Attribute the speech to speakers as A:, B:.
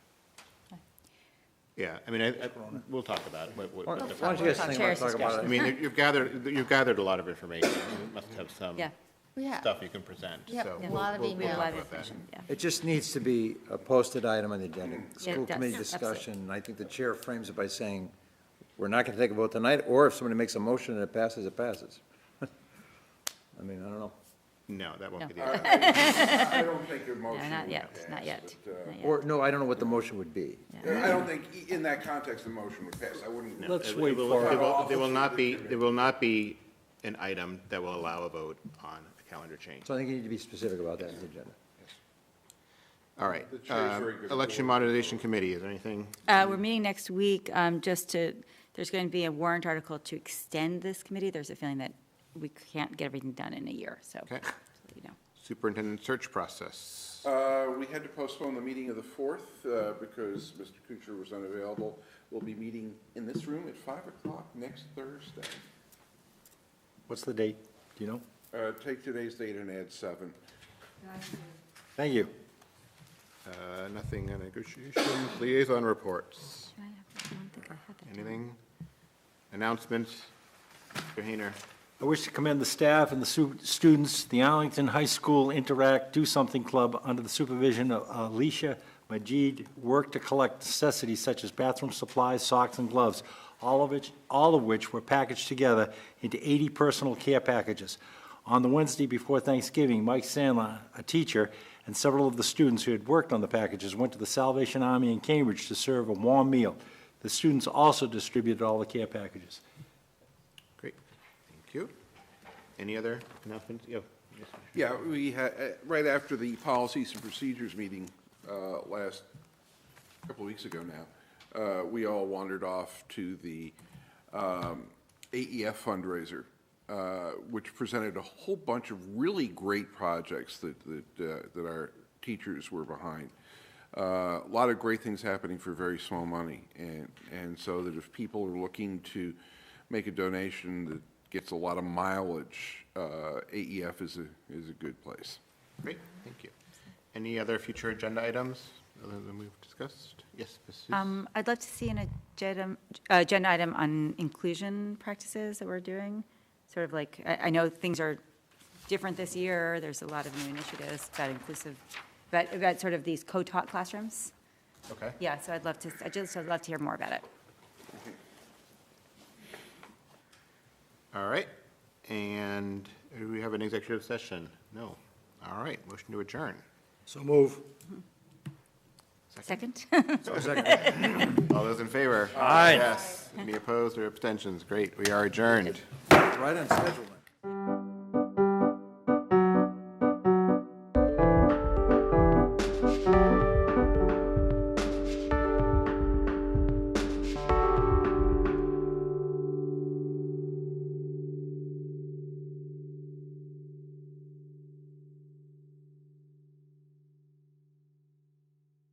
A: Yeah, I mean, I, I- we'll talk about it, what- what-
B: Why
A: what the-
B: don't you guys
C: Talk
B: think about,
C: terrace
B: talk about
A: I
B: it?
A: mean, you- you've gathered, you've gathered a lot of information, you must have some
C: Yeah.
D: Yeah.
A: stuff you can present,
D: Yep,
A: so.
D: a
A: we'll-
D: lot of
A: we'll- we'll
D: email.
A: talk
C: Live
A: about that.
C: information, yeah.
B: It just needs to be a posted item on the agenda, school
C: it does.
B: committee
C: Yeah, absolutely.
B: discussion, and I think the chair frames it by saying, we're not gonna take a vote tonight, or if somebody makes a motion and it passes, it passes. I mean, I don't know.
A: No, that
C: No.
A: won't be the outcome.
E: I don't think your
C: No,
E: motion
C: not
E: would
C: yet,
E: pass,
C: not yet,
E: but, uh,
C: not yet.
B: Or, no, I don't know what the motion would be.
E: I don't think, i- in that context, the motion would pass, I wouldn't.
A: No,
F: Let's
A: it- it
F: wait
A: will-
F: for
A: it
F: it.
A: will- There will not be, there will not be an item that will allow a vote on a calendar change.
B: So I think you need to be specific about that in the agenda.
A: All right,
E: The chair's very
A: um,
E: good at
A: election modernization committee, is there anything?
C: Uh, We're meeting next week, um, just to, there's going to be a warrant article to extend this committee. There's a feeling that we can't get everything done in a year, so,
A: Okay.
C: just let you know.
A: Superintendent search process.
E: Uh, We had to postpone the meeting of the 4th uh, because Mr. Kuchar was unavailable. We'll be meeting in this room at 5 o'clock next Thursday.
B: What's the date? Do you know?
E: Uh, Take today's date and add 7.
B: Thank you.
A: Uh, Nothing on negotiations, liaison reports,
C: Can I have- I don't think I had that.
A: anything? Announcements? Mr. Hayner?
F: I wish to commend the staff and the su- students, the Arlington High School Interact Do Something Club, under the supervision of Alicia Majid, work to collect necessities such as bathroom supplies, socks, and gloves, all of which, all of which were packaged together into 80 personal care packages. On the Wednesday before Thanksgiving, Mike Sandler, a teacher, and several of the students who had worked on the packages went to the Salvation Army in Cambridge to serve a warm meal. The students also distributed all the care packages.
A: Great, thank you. Any other announcements? Yo, yes, sir.
E: Yeah, we had, uh, right after the policies and procedures meeting uh, last, a couple of weeks ago now, uh, we all wandered off to the um, AEF fundraiser, uh, which presented a whole bunch of really great projects that, that, uh, that our teachers were behind. Uh, A lot of great things happening for very small money, and, and so that if people are looking to make a donation that gets a lot of mileage, uh, AEF is a, is a good place.
A: Great, thank you. Any other future agenda items other than we've discussed? Yes, Ms. Seuss?
C: Um, I'd love to see an agenda, uh, agenda item on inclusion practices that we're doing, sort of like, I, I know things are different this year, there's a lot of new initiatives about inclusive, about, about sort of these co-taught classrooms.
A: Okay.
C: Yeah, so I'd love to, I just, I'd love to hear more about it.
A: All right, and do we have an executive session? No. All right, motion to adjourn.
B: So move.
C: Second?
A: All those in favor?
F: Aye.
A: Yes. Any opposed or abstentions? Great, we are adjourned.
B: Right on schedule, man.